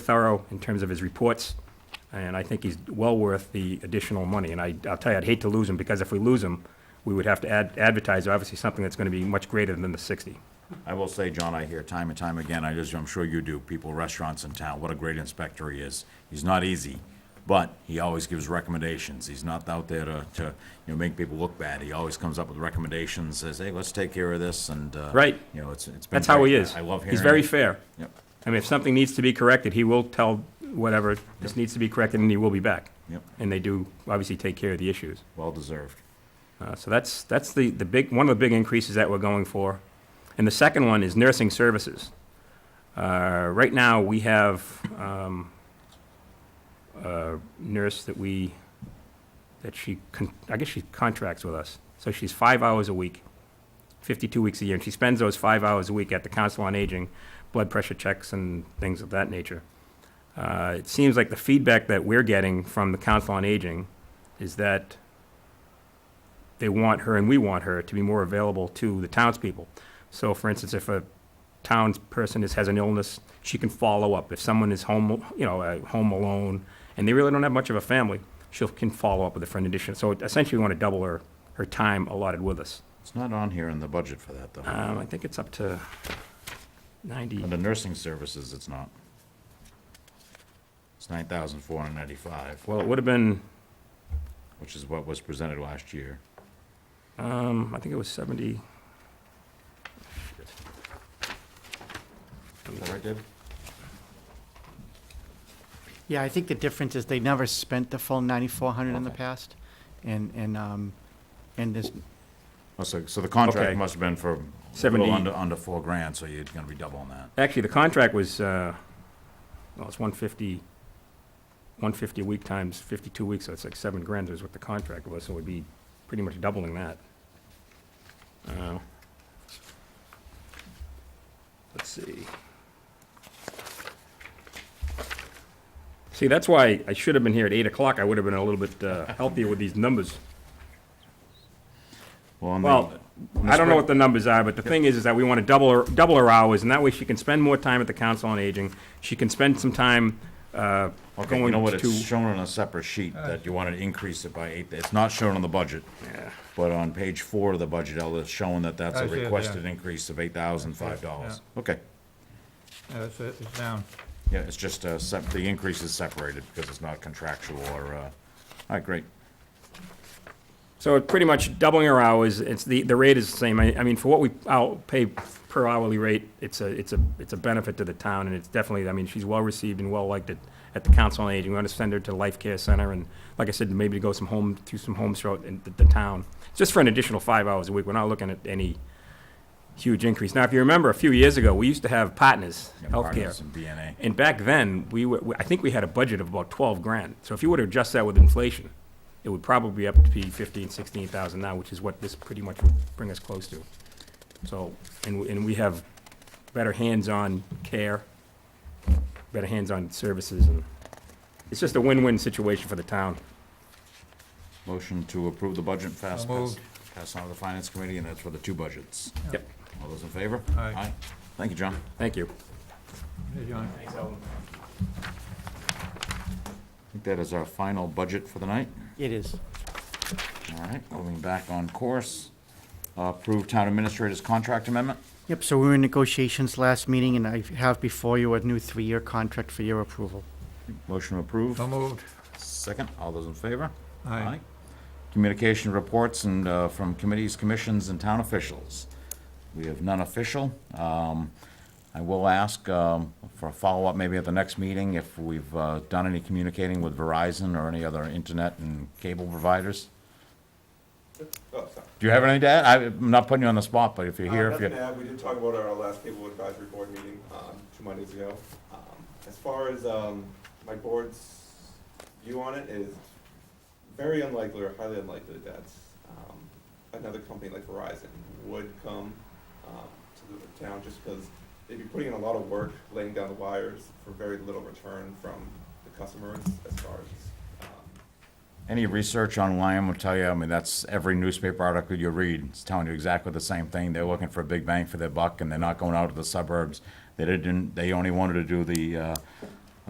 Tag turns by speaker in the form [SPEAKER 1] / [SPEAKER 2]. [SPEAKER 1] thorough in terms of his reports, and I think he's well worth the additional money. And I, I'll tell you, I'd hate to lose him, because if we lose him, we would have to ad- advertise, obviously, something that's gonna be much greater than the sixty.
[SPEAKER 2] I will say, John, I hear time and time again, I just, I'm sure you do, people, restaurants in town, what a great inspector he is. He's not easy, but he always gives recommendations. He's not out there to, to, you know, make people look bad. He always comes up with recommendations, says, hey, let's take care of this, and, uh,
[SPEAKER 1] Right.
[SPEAKER 2] You know, it's, it's been.
[SPEAKER 1] That's how he
[SPEAKER 2] great.
[SPEAKER 1] is.
[SPEAKER 2] I love hearing.
[SPEAKER 1] He's very
[SPEAKER 2] it.
[SPEAKER 1] fair.
[SPEAKER 2] Yep,
[SPEAKER 1] I mean, if something needs to be corrected, he will tell whatever, this needs to be corrected, and he will be back.
[SPEAKER 2] Yep.
[SPEAKER 1] And they do, obviously, take care of the issues.
[SPEAKER 2] well deserved.
[SPEAKER 1] Uh, So that's, that's the, the big, one of the big increases that we're going for. And the second one is nursing services. Uh, Right now, we have um, a nurse that we, that she, con- I guess she contracts with us. So she's five hours a week, 52 weeks a year, and she spends those five hours a week at the Council on Aging, blood pressure checks and things of that nature. Uh, It seems like the feedback that we're getting from the Council on Aging is that they want her and we want her to be more available to the townspeople. So for instance, if a townsperson is, has an illness, she can follow up. If someone is home, you know, uh, home alone, and they really don't have much of a family, she can follow up with a friend addition. So essentially, we want to double her, her time allotted with us.
[SPEAKER 2] It's not on here in the budget for that, though.
[SPEAKER 1] Um, I think it's up to ninety.
[SPEAKER 2] Under nursing services, it's not. It's nine thousand four hundred ninety-five,
[SPEAKER 1] Well, it would have been,
[SPEAKER 2] which is what was presented last year.
[SPEAKER 1] um, I think it was seventy.
[SPEAKER 2] Is that right, Dave?
[SPEAKER 3] Yeah, I think the difference is they never spent the full ninety-four hundred in the
[SPEAKER 2] Okay.
[SPEAKER 3] past, and, and, um, and this,
[SPEAKER 2] Oh, So, so the contract
[SPEAKER 1] Okay.
[SPEAKER 2] must have been for a
[SPEAKER 1] Seventy-
[SPEAKER 2] little under, under four grand, so you're gonna be doubling that.
[SPEAKER 1] Actually, the contract was, uh, well, it's 150, 150 a week times 52 weeks, so it's like seven grand is what the contract was, so we'd be pretty much doubling that. Uh, Let's see. See, that's why I should have been here at 8 o'clock. I would have been a little bit uh, healthier with these numbers.
[SPEAKER 2] on the-
[SPEAKER 1] Well,
[SPEAKER 2] on the
[SPEAKER 1] I don't know
[SPEAKER 2] spring-
[SPEAKER 1] what the numbers are, but the thing is, is that we want to double her, double her hours, and that way she can spend more time at the Council on Aging. She can spend some time uh,
[SPEAKER 2] Okay, you
[SPEAKER 1] going
[SPEAKER 2] know what, it's
[SPEAKER 1] to, Uh.
[SPEAKER 2] shown on a separate sheet that you wanted to increase it by eight, it's not shown on the budget. But on page four of the budget, Ella, it's showing that that's
[SPEAKER 4] I
[SPEAKER 2] a
[SPEAKER 4] see it, yeah.
[SPEAKER 2] requested increase of eight thousand five dollars. Okay,
[SPEAKER 4] Yeah, it's, uh, it's down.
[SPEAKER 2] yeah, it's just, uh, sep- the increase is separated because it's not contractual or, uh, all right, great.
[SPEAKER 1] so it's pretty much doubling her hours. It's, the, the rate is the same. I, I mean, for what we, I'll pay per hourly rate, it's a, it's a, it's a benefit to the town, and it's definitely, I mean, she's well-received and well-liked at, at the Council on Aging. We want to send her to Life Care Center, and like I said, maybe to go some home, through some homes throughout in the, the town, just for an additional five hours a week. We're not looking at any huge increase. Now, if you remember, a few years ago, we used to have partners,
[SPEAKER 2] Yeah,
[SPEAKER 1] healthcare.
[SPEAKER 2] partners and DNA.
[SPEAKER 1] And back then, we were, I think we had a budget of about twelve grand. So if you were to adjust that with inflation, it would probably be up to be fifteen, sixteen thousand now, which is what this pretty much would bring us close to. So, and, we- and we have better hands-on care, better hands-on services, and it's just a win-win situation for the town.
[SPEAKER 2] Motion to approve the budget, fast pass,
[SPEAKER 4] moved.
[SPEAKER 2] pass on to the finance committee, and that's for the two budgets.
[SPEAKER 1] Yep,
[SPEAKER 2] All those in favor?
[SPEAKER 4] Aye.
[SPEAKER 2] Thank you, John.
[SPEAKER 1] thank you.
[SPEAKER 4] Hey, John.
[SPEAKER 2] I think that is our final budget for the night.
[SPEAKER 3] it is.
[SPEAKER 2] All right, moving back on course. Uh, Approve town administrator's contract amendment.
[SPEAKER 3] Yep, so we were in negotiations last meeting, and I have before you a new three-year contract for your approval.
[SPEAKER 2] Motion to approve.
[SPEAKER 4] So moved.
[SPEAKER 2] Second, all those in favor?
[SPEAKER 4] Oh. Aye.
[SPEAKER 2] Communication reports and uh, from committees, commissions, and town officials. We have none official. Um, I will ask um, for a follow-up maybe at the next meeting if we've uh, done any communicating with Verizon or any other internet and cable providers. Do you have anything to add? I- I'm not putting you on the spot, but if you're
[SPEAKER 5] Oh, Uh,
[SPEAKER 2] here, if
[SPEAKER 5] nothing
[SPEAKER 2] you,
[SPEAKER 5] to add. We did talk about our last cable advisory board meeting, um, two Mondays ago. Um, As far as, um, my board's view on it is very unlikely or highly unlikely that um, another company like Verizon would come, um, to the town just because they'd be putting in a lot of work laying down the wires for very little return from the customers as far as, um,
[SPEAKER 2] Any research online will tell you, I mean, that's every newspaper article you read, it's telling you exactly the same thing. They're looking for a big bang for their buck, and they're not going out to the suburbs. They didn't, they only wanted to do the, uh,